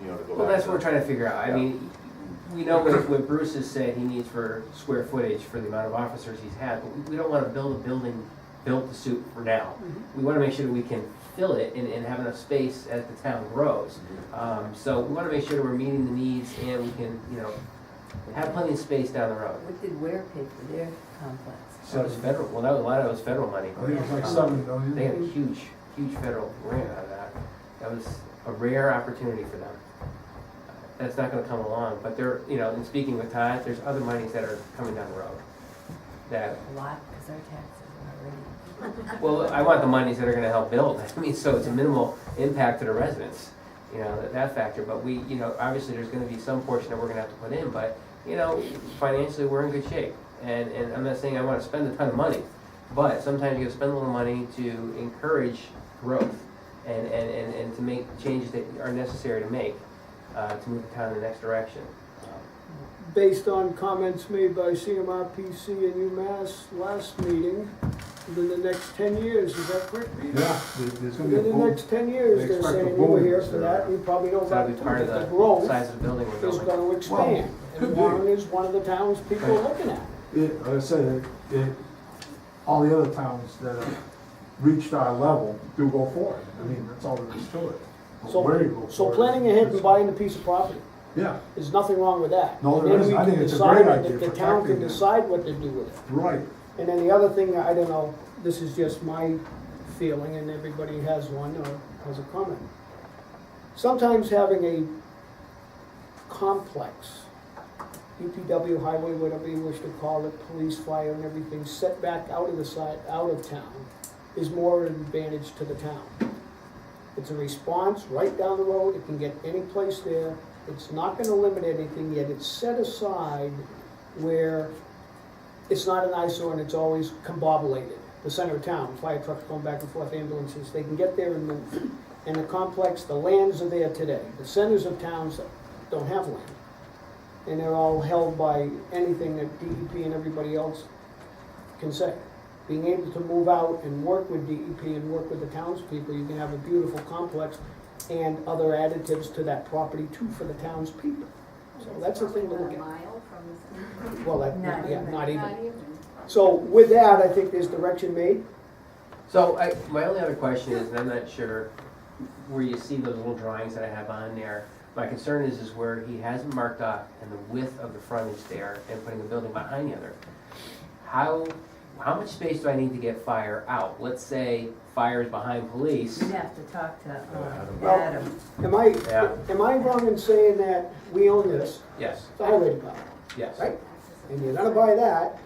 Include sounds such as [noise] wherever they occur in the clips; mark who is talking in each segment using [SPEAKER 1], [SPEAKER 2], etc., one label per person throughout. [SPEAKER 1] go
[SPEAKER 2] Well,
[SPEAKER 1] back
[SPEAKER 2] that's
[SPEAKER 1] to-
[SPEAKER 2] what we're trying to figure out. I
[SPEAKER 1] Yeah.
[SPEAKER 2] mean, we know what, what Bruce has said he needs for square footage for the amount of officers he's had, but we- we don't wanna build a building, built to suit for now.
[SPEAKER 3] Mm-hmm.
[SPEAKER 2] We wanna make sure that we can fill it and, and have enough space as the town grows. Um, so we wanna make sure that we're meeting the needs and we can, you know, have plenty of space down the road.
[SPEAKER 3] What did Ware pay for their complex?
[SPEAKER 2] So it's federal, well, that was, a lot of it was federal money.
[SPEAKER 4] I think it was like seven million.
[SPEAKER 2] They had a huge, huge federal grant out of that. That was a rare opportunity for them. That's not gonna come along, but there, you know, in speaking with Todd, there's other monies that are coming down the road. That,
[SPEAKER 3] A lot, because our taxes are already.
[SPEAKER 2] well, I want the monies that are gonna help build, [laughs] I mean, so it's a minimal impact to the residents, you know, that, that factor, but we, you know, obviously, there's gonna be some portion that we're gonna have to put in, but, you know, financially, we're in good shape. And, and I'm not saying I wanna spend a ton of money, but sometimes you gotta spend a little money to encourage growth and, and, and, and to make changes that are necessary to make, uh, to move the town in the next direction.
[SPEAKER 5] based on comments made by CMRPC and UMass last meeting, within the next ten years, is that correct, Peter?
[SPEAKER 4] Yeah, there- there's gonna be a
[SPEAKER 5] Within the
[SPEAKER 4] boom.
[SPEAKER 5] next ten years,
[SPEAKER 4] They
[SPEAKER 5] they're
[SPEAKER 4] expect a
[SPEAKER 5] saying, you were
[SPEAKER 4] boom
[SPEAKER 5] here
[SPEAKER 4] this
[SPEAKER 5] for
[SPEAKER 4] year.
[SPEAKER 5] that, you probably know
[SPEAKER 2] So that'd
[SPEAKER 5] about
[SPEAKER 2] be part
[SPEAKER 5] that,
[SPEAKER 2] of
[SPEAKER 5] the
[SPEAKER 2] the
[SPEAKER 5] growth
[SPEAKER 2] size of the building we're
[SPEAKER 5] is
[SPEAKER 2] building.
[SPEAKER 5] gonna expand.
[SPEAKER 4] could
[SPEAKER 5] And
[SPEAKER 4] be.
[SPEAKER 5] Warren is one of the towns people
[SPEAKER 2] Right.
[SPEAKER 5] looking at.
[SPEAKER 4] Yeah, like I said, it, it, all the other towns that have reached our level do go for it. I mean, that's all there is to it. But where you go
[SPEAKER 5] So, so
[SPEAKER 4] for it
[SPEAKER 5] planning ahead
[SPEAKER 4] is-
[SPEAKER 5] and buying a piece of property,
[SPEAKER 4] Yeah,
[SPEAKER 5] there's nothing wrong with that.
[SPEAKER 4] No,
[SPEAKER 5] And
[SPEAKER 4] there
[SPEAKER 5] then
[SPEAKER 4] isn't.
[SPEAKER 5] we
[SPEAKER 4] I think
[SPEAKER 5] can
[SPEAKER 4] it's a great
[SPEAKER 5] decide-
[SPEAKER 4] idea
[SPEAKER 5] The
[SPEAKER 4] for
[SPEAKER 5] town can
[SPEAKER 4] protecting it.
[SPEAKER 5] decide what to do with it.
[SPEAKER 4] right.
[SPEAKER 5] And then the other thing, I don't know, this is just my feeling, and everybody has one or has a comment. Sometimes having a complex, UPW highway, whatever you wish to call it, police, fire, and everything, set back out of the side, out of town, is more an advantage to the town. It's a response right down the road, it can get any place there, it's not gonna limit anything, yet it's set aside where it's not an eyesore and it's always combobulated. The center of town, fire trucks going back and forth, ambulances, they can get there and move. And the complex, the lands are there today. The centers of towns don't have land. And they're all held by anything that DEP and everybody else can say. Being able to move out and work with DEP and work with the townspeople, you can have a beautiful complex and other additives to that property too for the townspeople. So that's the thing to look
[SPEAKER 6] A
[SPEAKER 5] at.
[SPEAKER 6] mile from
[SPEAKER 5] Well, that,
[SPEAKER 3] Not
[SPEAKER 5] yeah,
[SPEAKER 3] even.
[SPEAKER 5] not
[SPEAKER 6] the.
[SPEAKER 5] even.
[SPEAKER 6] Not even.
[SPEAKER 5] So with that, I think there's direction made.
[SPEAKER 2] So I, my only other question is, and I'm not sure where you see those little drawings that I have on there. My concern is, is where he hasn't marked off and the width of the frontage there and putting a building behind the other. How, how much space do I need to get fire out? Let's say fire is behind police.
[SPEAKER 3] You'd have to talk to um,
[SPEAKER 5] Well-
[SPEAKER 3] Adam.
[SPEAKER 5] Am I,
[SPEAKER 2] Yeah.
[SPEAKER 5] am I wrong in saying that we own this,
[SPEAKER 2] Yes,
[SPEAKER 5] it's a highway department,
[SPEAKER 2] yes.
[SPEAKER 5] right? And you're gonna buy that.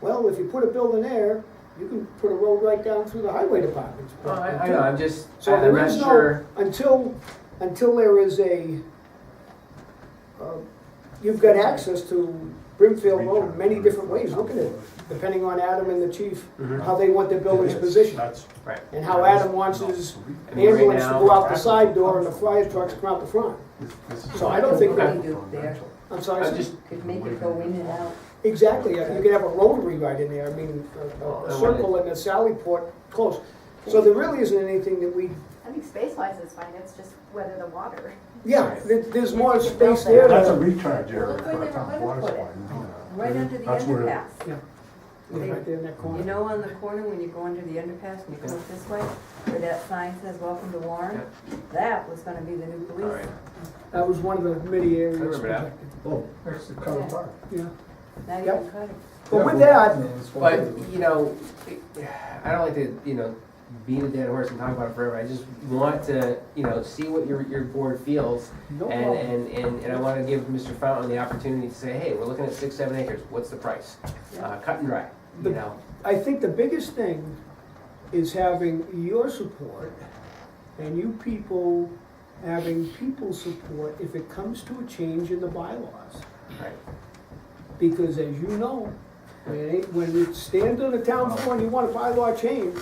[SPEAKER 5] Well, if you put a building there, you can put a road right down through the highway department's
[SPEAKER 2] No, Oh, I,
[SPEAKER 5] property,
[SPEAKER 2] I
[SPEAKER 5] too.
[SPEAKER 2] know, I'm just,
[SPEAKER 5] So
[SPEAKER 2] I'm
[SPEAKER 5] there is
[SPEAKER 2] not
[SPEAKER 5] no,
[SPEAKER 2] sure.
[SPEAKER 5] until, until there is a, uh, you've got access to Brimfield Road many different ways, look at it, depending on Adam and the chief,
[SPEAKER 2] Mhm.
[SPEAKER 5] how they want their buildings
[SPEAKER 4] Yes,
[SPEAKER 5] positioned.
[SPEAKER 4] Mm-hmm. That's.
[SPEAKER 2] Right.
[SPEAKER 5] And how Adam wants his
[SPEAKER 2] I mean, right
[SPEAKER 5] ambulance to
[SPEAKER 2] now-
[SPEAKER 5] go out the side door and the fire trucks come out the front.
[SPEAKER 4] this- this is-
[SPEAKER 5] So I don't think
[SPEAKER 3] that- We do there.
[SPEAKER 5] I'm sorry,
[SPEAKER 2] I'm
[SPEAKER 5] sir?
[SPEAKER 2] just,
[SPEAKER 3] Could make it go in and out.
[SPEAKER 5] exactly, you could have a rotary right in there, I mean, a-
[SPEAKER 2] Well, Oh,
[SPEAKER 5] a-
[SPEAKER 2] I
[SPEAKER 5] a circle and a sally port close. So there really isn't anything that we,
[SPEAKER 6] I think space wise is fine, it's just whether the water.
[SPEAKER 5] yeah, there- there's more space there.
[SPEAKER 4] That's a
[SPEAKER 5] than-
[SPEAKER 4] recharge area
[SPEAKER 3] Look where
[SPEAKER 4] for
[SPEAKER 3] they
[SPEAKER 4] a town
[SPEAKER 3] would've
[SPEAKER 4] water
[SPEAKER 3] put
[SPEAKER 4] supply.
[SPEAKER 3] it.
[SPEAKER 4] Yeah.
[SPEAKER 3] Right under the
[SPEAKER 4] That's where-
[SPEAKER 3] underpass.
[SPEAKER 5] Yeah, Right there in that
[SPEAKER 3] You
[SPEAKER 5] corner.
[SPEAKER 3] know on the corner when you go under the underpass and you come up this way, where that sign says, welcome to Warren? That was gonna be the new
[SPEAKER 2] all right,
[SPEAKER 3] police.
[SPEAKER 5] That was one of the many areas.
[SPEAKER 2] I remember that.
[SPEAKER 5] protected.
[SPEAKER 4] Oh, next to Cutler Park.
[SPEAKER 5] Yeah.
[SPEAKER 3] Now you
[SPEAKER 5] Yep.
[SPEAKER 3] can cut it.
[SPEAKER 5] But with
[SPEAKER 4] Yeah,
[SPEAKER 5] that,
[SPEAKER 4] it's one
[SPEAKER 2] But,
[SPEAKER 4] of the-
[SPEAKER 2] you know, I don't like to, you know, beat a dead horse and talk about it forever. I just want to, you know, see what your, your board feels.
[SPEAKER 5] no
[SPEAKER 2] And,
[SPEAKER 5] problem.
[SPEAKER 2] and, and, and I want to give Mr. Fountain the opportunity to say, hey, we're looking at six, seven acres, what's the price? Uh, cut and dry, you
[SPEAKER 5] But-
[SPEAKER 2] know?
[SPEAKER 5] I think the biggest thing is having your support and you people having people's support if it comes to a change in the bylaws.
[SPEAKER 2] Right.
[SPEAKER 5] Because as you know, when it- when you stand on the town floor and you want a bylaw change,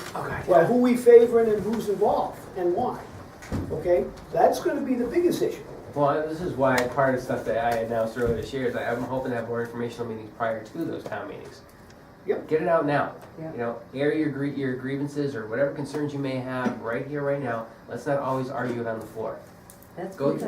[SPEAKER 5] well, who we favoring and who's involved and why, okay? That's gonna be the biggest issue.
[SPEAKER 2] Well, this is why part of the stuff that I announced earlier this year is that I'm hoping to have more informational meetings prior to those town meetings.
[SPEAKER 5] Yep.
[SPEAKER 2] Get it out now.
[SPEAKER 3] Yeah.
[SPEAKER 2] You know, air your gr- your grievances or whatever concerns you may have right here, right now. Let's not always argue it on the floor.
[SPEAKER 3] That's
[SPEAKER 2] Go
[SPEAKER 3] because